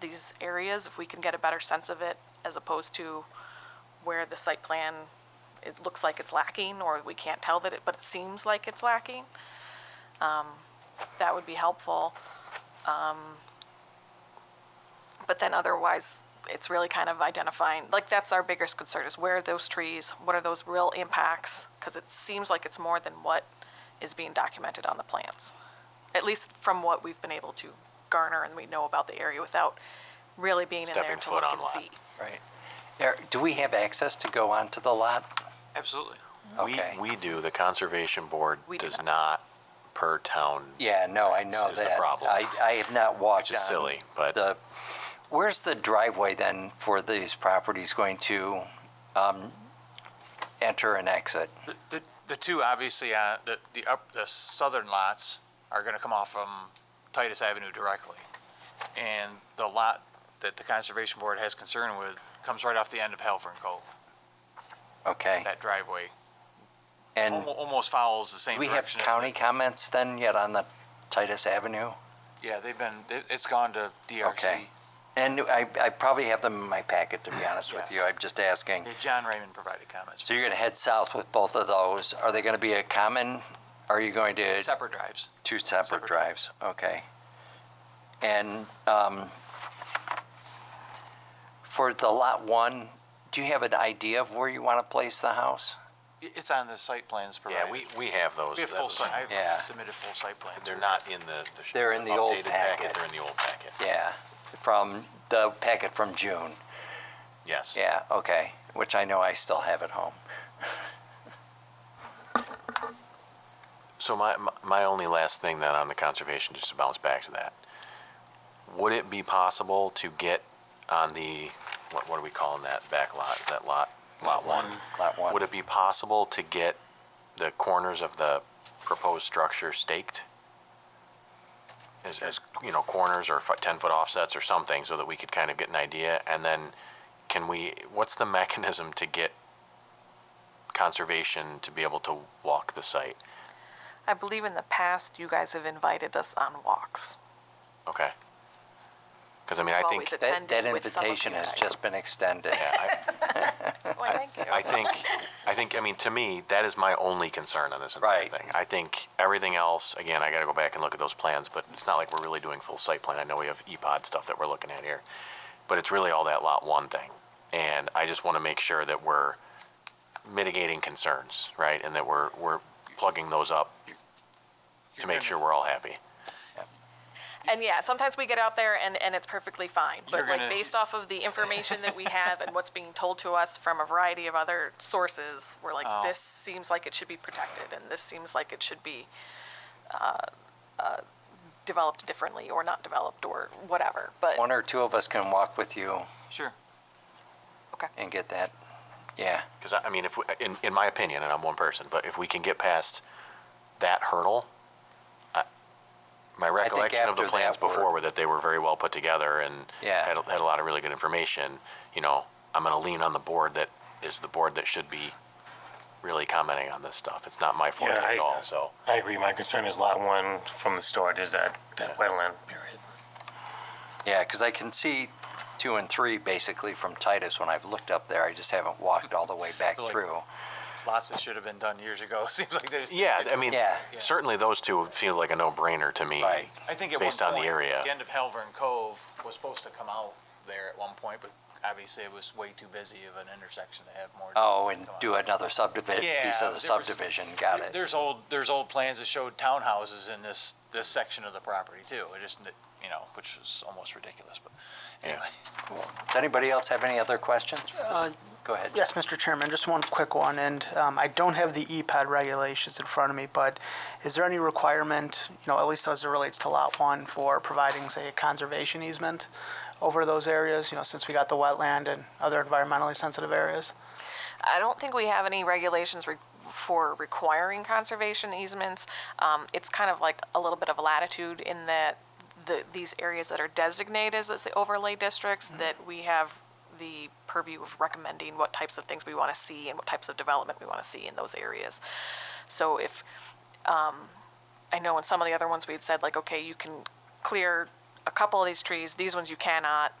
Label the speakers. Speaker 1: these areas, if we can get a better sense of it as opposed to where the site plan, it looks like it's lacking or we can't tell that it, but it seems like it's lacking. Um, That would be helpful. Um, But then otherwise, it's really kind of identifying, like, that's our biggest concern is where are those trees? What are those real impacts? Because it seems like it's more than what is being documented on the plans, at least from what we've been able to garner and we know about the area without really being in there
Speaker 2: Stepping
Speaker 1: to
Speaker 2: foot
Speaker 1: look
Speaker 2: on
Speaker 1: and
Speaker 2: lot.
Speaker 1: see.
Speaker 3: Right. There- Do we have access to go onto the lot?
Speaker 4: Absolutely.
Speaker 2: We,
Speaker 3: Okay.
Speaker 2: we do, the Conservation Board
Speaker 1: We do
Speaker 2: does
Speaker 1: not.
Speaker 2: not per town,
Speaker 3: Yeah, no, I know
Speaker 2: Is the
Speaker 3: that.
Speaker 2: problem.
Speaker 3: I, I have not
Speaker 2: which
Speaker 3: walked
Speaker 2: is
Speaker 3: on
Speaker 2: silly, but
Speaker 3: the, where's the driveway then for these properties going to um, enter and exit?
Speaker 4: The, the, the two obviously, uh, the, the up, the southern lots are gonna come off from Titus Avenue directly. And the lot that the Conservation Board has concern with comes right off the end of Halvern Cove,
Speaker 3: Okay,
Speaker 4: that driveway.
Speaker 3: and
Speaker 4: Almo- Almost follows the same
Speaker 3: we have
Speaker 4: direction. as the-
Speaker 3: county comments then yet on the Titus Avenue?
Speaker 4: Yeah, they've been, it, it's gone to DRC.
Speaker 3: Okay. And I, I probably have them in my packet, to be honest with you,
Speaker 4: Yes.
Speaker 3: I'm just asking.
Speaker 4: Yeah, Uh, John Raymond provided comments.
Speaker 3: So you're going to head south with both of those. Are they going to be a common, are you going
Speaker 2: uh,
Speaker 3: to?
Speaker 4: Separate drives.
Speaker 3: Two separate
Speaker 4: Separate.
Speaker 3: drives, okay. And um, for the lot one, do you have an idea of where you want to place the house?
Speaker 4: I- It's on the site plans provided.
Speaker 2: yeah, we, we have those.
Speaker 4: We have
Speaker 2: That
Speaker 4: full
Speaker 2: was-
Speaker 4: site,
Speaker 3: Yeah.
Speaker 4: I've submitted full site plans.
Speaker 2: They're not in the. the sh-
Speaker 3: They're in the old
Speaker 2: updated
Speaker 3: packet.
Speaker 2: They're in the old packet,
Speaker 3: Yeah, from the packet from June.
Speaker 2: yes.
Speaker 3: Yeah, okay, which I know I still have at home.
Speaker 2: So my, my- my only last thing then on the conservation, just to bounce back to that. Would it be possible to get on the, what, what are we calling that back lot? Is that lot? Lot one.
Speaker 3: Lot one.
Speaker 2: Would it be possible to get the corners of the proposed structure staked? As, as, you know, corners or ten-foot offsets or something, so that we could kind of get an idea? And then can we, what's the mechanism to get conservation to be able to walk the site?
Speaker 1: I believe in the past, you guys have invited us on walks.
Speaker 2: Okay. Because I mean, I think,
Speaker 1: Always a-
Speaker 3: That, that
Speaker 1: Attended with some of
Speaker 3: invitation
Speaker 1: you
Speaker 3: has
Speaker 1: guys.
Speaker 3: just been extended.
Speaker 2: yeah, I,
Speaker 1: Well, thank you.
Speaker 2: I think, I think, I mean, to me, that is my only concern on this entire
Speaker 3: Right.
Speaker 2: thing. I think everything else, again, I got to go back and look at those plans, but it's not like we're really doing full site plan. I know we have E EPOD stuff that we're looking at here, but it's really all that lot one thing. And I just want to make sure that we're mitigating concerns, right? And that we're, we're plugging those up to make sure we're all happy.
Speaker 1: And yeah, sometimes we get out there and, and it's perfectly fine. But
Speaker 4: You're
Speaker 1: like
Speaker 4: gonna-
Speaker 1: based off of the information that we have and what's being told to us from a variety of other sources, we're like,
Speaker 4: Oh.
Speaker 1: this seems like it should be protected and this seems like it should be uh, uh, developed differently or not developed or whatever. But
Speaker 3: One or two of us can walk with you
Speaker 4: Sure.
Speaker 1: okay,
Speaker 3: and get that, yeah.
Speaker 2: Because I I mean, if we, in in my opinion, and I'm one person, but if we can get past that hurdle, I, my recollection of the
Speaker 3: after
Speaker 2: plans
Speaker 3: that
Speaker 2: before
Speaker 3: work-
Speaker 2: were that they were very well put together and
Speaker 3: Yeah.
Speaker 2: had a- had a lot of really good information. You know, I'm going to lean on the board that is the board that should be really commenting on this stuff. It's not my forte
Speaker 5: Yeah, I-
Speaker 2: at all. So
Speaker 5: I agree. My concern is lot one from the start is that, that wetland period.
Speaker 3: Yeah, because I can see two and three basically from Titus when I've looked up there. I just haven't walked all the way back
Speaker 4: Like-
Speaker 3: through.
Speaker 4: Lots that should have been done years ago. Seems like they just.
Speaker 2: yeah, I mean,
Speaker 3: Yeah.
Speaker 2: certainly those two feel like a no-brainer to me.
Speaker 3: Right.
Speaker 4: I think at
Speaker 2: based
Speaker 4: one
Speaker 2: on the
Speaker 4: point,
Speaker 2: area.
Speaker 4: the end of Halvern Cove was supposed to come out there at one point, but obviously it was way too busy of an intersection to have more.
Speaker 3: Oh, and
Speaker 4: come out.
Speaker 3: do another subdivision,
Speaker 4: Yeah,
Speaker 3: piece of
Speaker 4: there
Speaker 3: the
Speaker 4: was-
Speaker 3: subdivision. Got it.
Speaker 4: There's old there's old plans that showed townhouses in this this section of the property too. It just you know which is almost ridiculous, but anyway.
Speaker 3: Does anybody else have any other questions?
Speaker 6: Uh,
Speaker 3: Go ahead.
Speaker 6: Yes, Mr. Chairman, just one quick one, and um, I don't have the EPAD regulations in front of me, but is there any requirement, you know, at least as it relates to Lot 1, for providing, say, a conservation easement over those areas, you know, since we got the wetland and other environmentally sensitive areas?
Speaker 1: I don't think we have any regulations re- for requiring conservation easements. Um, it's kind of like a little bit of latitude in that the, these areas that are designated as the overlay districts, that we have the purview of recommending what types of things we want to see and what types of development we want to see in those areas. So if, um, I know in some of the other ones we had said like, okay, you can clear a couple of these trees, these ones you cannot,